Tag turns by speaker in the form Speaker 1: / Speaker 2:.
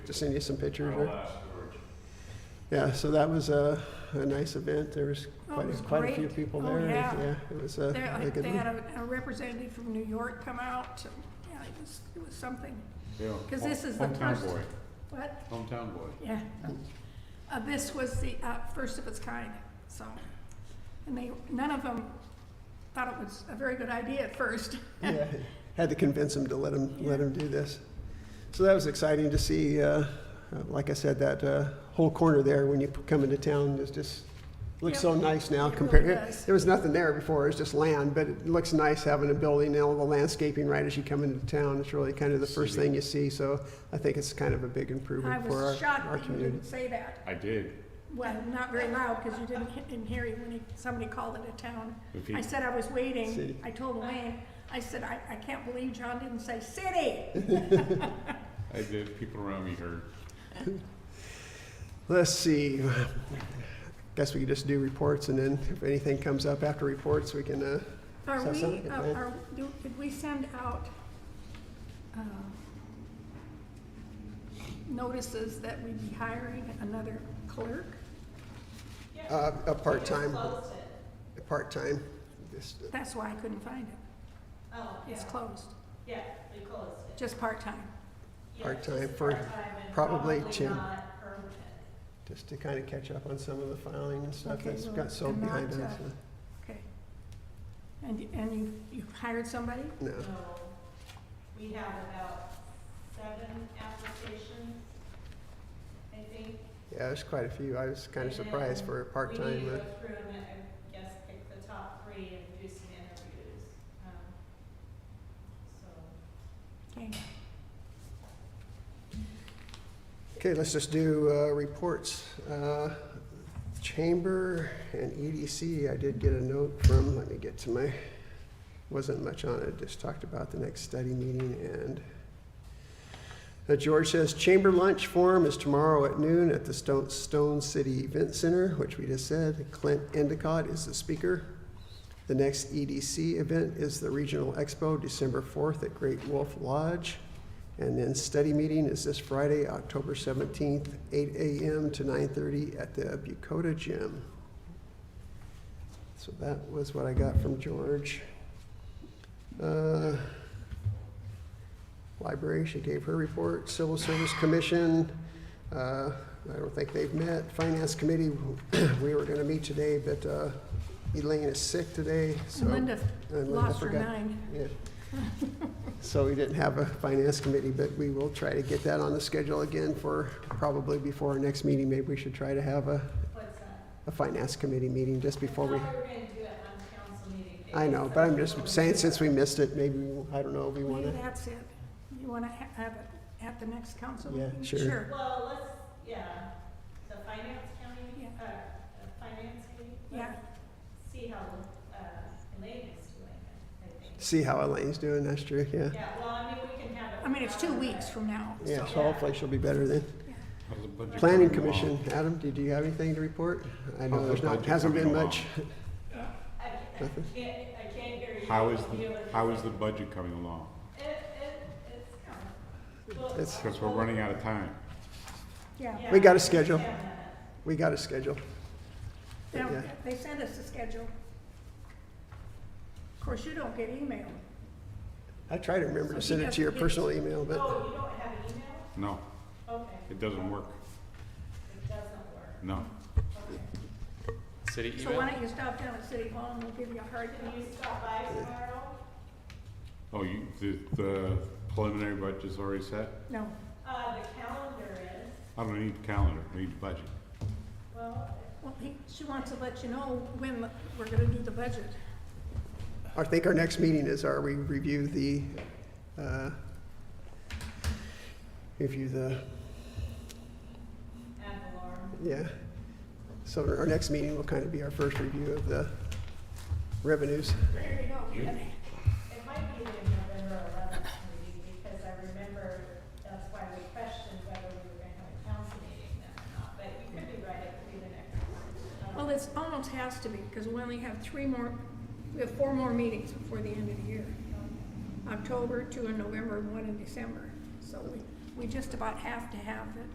Speaker 1: to send you some pictures. Or, yeah, so that was a, a nice event. There was
Speaker 2: Oh, it
Speaker 1: quite, a-
Speaker 2: was
Speaker 1: quite a few
Speaker 2: great.
Speaker 1: people
Speaker 2: Oh,
Speaker 1: there.
Speaker 2: yeah.
Speaker 1: it was a,
Speaker 2: They,
Speaker 1: a
Speaker 2: like,
Speaker 1: good
Speaker 2: they had
Speaker 1: one.
Speaker 2: a a representative from New York come out, so, yeah, it was, it was something. Because this is the first-
Speaker 3: Hometown
Speaker 2: What?
Speaker 3: boy, hometown boy.
Speaker 2: Yeah. Uh, this was the, uh, first of its kind, so. And they, none of them thought it was a very good idea at first.
Speaker 1: yeah, had to convince them to let him let him do this. So that was exciting to see. Uh, uh, like I said, that uh, whole corner there when you p- come into town is just looks
Speaker 2: Yep.
Speaker 1: so nice now.
Speaker 2: It
Speaker 1: compared,
Speaker 2: really does.
Speaker 1: there was nothing there before. It was just land, but it looks nice having a building and all the landscaping right as you come into town. It's really kind of the first thing you see. So I think it's kind of a big
Speaker 2: I
Speaker 1: improvement for
Speaker 2: was
Speaker 1: our,
Speaker 2: shocked
Speaker 1: our
Speaker 2: that you
Speaker 1: community.
Speaker 2: didn't say that.
Speaker 3: I did.
Speaker 2: Well, not very loud, because you didn't, he- didn't hear it when he, somebody called it a town.
Speaker 3: If he-
Speaker 2: I said I was waiting.
Speaker 1: City.
Speaker 2: I told Elaine, I said, I, I can't believe John didn't say city.
Speaker 3: I did. People around me heard.
Speaker 1: Let's see. Guess we could just do reports, and then if anything comes up after reports, we can. Uh,
Speaker 2: Are
Speaker 1: So
Speaker 2: we,
Speaker 1: some-
Speaker 2: uh, are, do- did we send out uh, notices that we'd be hiring another clerk?
Speaker 1: Uh, a part-time. A part-time, this,
Speaker 2: That's why I couldn't find it.
Speaker 4: Oh,
Speaker 2: It's closed,
Speaker 4: yeah, they closed it.
Speaker 2: just part-time.
Speaker 4: Yeah,
Speaker 1: Part-time
Speaker 4: it's
Speaker 1: for
Speaker 4: part-time and
Speaker 1: probably two.
Speaker 4: not permanent.
Speaker 1: just to kind of catch up on some of the filing and stuff
Speaker 2: Okay,
Speaker 1: that's
Speaker 2: well,
Speaker 1: got so
Speaker 2: I'm not,
Speaker 1: behind
Speaker 2: uh,
Speaker 1: us. uh,
Speaker 2: Okay. And, and you, you hired somebody?
Speaker 1: No,
Speaker 4: So we have about seven applications, I think.
Speaker 1: yeah, there's quite a few. I was kind
Speaker 4: And
Speaker 1: of surprised
Speaker 4: then
Speaker 1: for a
Speaker 4: We need
Speaker 1: part-time.
Speaker 4: to
Speaker 1: uh,
Speaker 4: go through and, I guess, pick the top three and do some interviews. Um, So,
Speaker 2: Okay.
Speaker 1: Okay, let's just do, uh, reports. Uh, Chamber and EDC, I did get a note from, let me get to my, wasn't much on it, just talked about the next study meeting and uh, George says chamber lunch forum is tomorrow at noon at the Stone, Stone City Event Center, which we just said. Clint Endicott is the speaker. The next EDC event is the Regional Expo, December fourth at Great Wolf Lodge. And then study meeting is this Friday, October seventeenth, eight AM to nine thirty at the Bucota Gym. So that was what I got from George. Uh, Library, she gave her report, Civil Service Commission, uh, I don't think they've met, Finance Committee, we were gonna meet today, but, uh, Elaine is sick today, so.
Speaker 2: And Linda
Speaker 1: and Linda
Speaker 2: lost her
Speaker 1: forgot.
Speaker 2: nine.
Speaker 1: Yeah. So we didn't have a finance committee, but we will try to get that on the schedule again for probably before our next meeting. Maybe we should try to have a,
Speaker 4: what's that?
Speaker 1: a finance committee meeting just before we,
Speaker 4: I thought we were gonna do it on council meeting.
Speaker 1: I know, but I'm just saying, since we missed it, maybe, we- I don't know, we want
Speaker 2: Maybe
Speaker 1: to.
Speaker 2: that's it. You want to have it at the next council
Speaker 1: Yeah,
Speaker 2: meeting?
Speaker 1: sure.
Speaker 4: Well, let's, yeah, the finance county,
Speaker 2: Yeah.
Speaker 4: uh, the finance committee?
Speaker 2: Yeah.
Speaker 4: let's See how, uh, Elaine is doing, I think.
Speaker 1: See how Elaine's doing, that's true, yeah.
Speaker 4: Yeah, well, I mean, we can have it.
Speaker 2: I mean, it's two
Speaker 4: without
Speaker 2: weeks
Speaker 4: her.
Speaker 2: from now, so.
Speaker 1: Yeah, so hopefully she'll be better then.
Speaker 3: How's the budget
Speaker 1: Planning
Speaker 3: coming along?
Speaker 1: Commission, Adam, did you have anything to report? I know
Speaker 3: How's
Speaker 1: there's
Speaker 3: the
Speaker 1: not,
Speaker 3: budget
Speaker 1: hasn't been
Speaker 3: coming along?
Speaker 1: much.
Speaker 4: I I can't, I can't hear you.
Speaker 3: How is
Speaker 4: I'll be
Speaker 3: the,
Speaker 4: able to-
Speaker 3: how is the budget coming along?
Speaker 4: It, it, eh, it's coming. Well,
Speaker 1: It's-
Speaker 3: Because we're running out of time.
Speaker 2: Yeah.
Speaker 4: yeah,
Speaker 1: We got a schedule.
Speaker 4: I understand that.
Speaker 1: We got a schedule.
Speaker 2: Now,
Speaker 1: Yeah.
Speaker 2: they send us a schedule. Of course, you don't get email.
Speaker 1: I try to remember to
Speaker 2: So he
Speaker 1: send it to your
Speaker 2: doesn't get-
Speaker 1: personal email, but
Speaker 4: Oh, you don't have an email?
Speaker 3: No,
Speaker 4: Okay,
Speaker 3: it doesn't work.
Speaker 4: it doesn't work,
Speaker 3: No.
Speaker 4: okay.
Speaker 5: City
Speaker 2: So
Speaker 5: email?
Speaker 2: why don't you stop down at City Hall and we'll give you a hard
Speaker 4: Can
Speaker 2: copy.
Speaker 4: you stop by tomorrow?
Speaker 3: Oh, you, the, the preliminary budget's already set?
Speaker 2: No,
Speaker 4: Uh, the calendar is,
Speaker 3: I don't need calendar, I need budget.
Speaker 4: well,
Speaker 2: well, he, she wants to let you know when we're gonna do the budget.
Speaker 1: I think our next meeting is, our we review the, uh, review the,
Speaker 4: ad valorem.
Speaker 1: yeah. So our next meeting will kind of be our first review of the revenues.
Speaker 2: There you go.
Speaker 4: It might be the November eleventh meeting, because I remember that's why we questioned whether we were gonna have a council meeting then or not, but you could be right, it could be the next one.
Speaker 2: Well, this almost has to be, because we only have three more, we have four more meetings before the end of the year. October, two in November, and one in December. So we, we just about have to have it.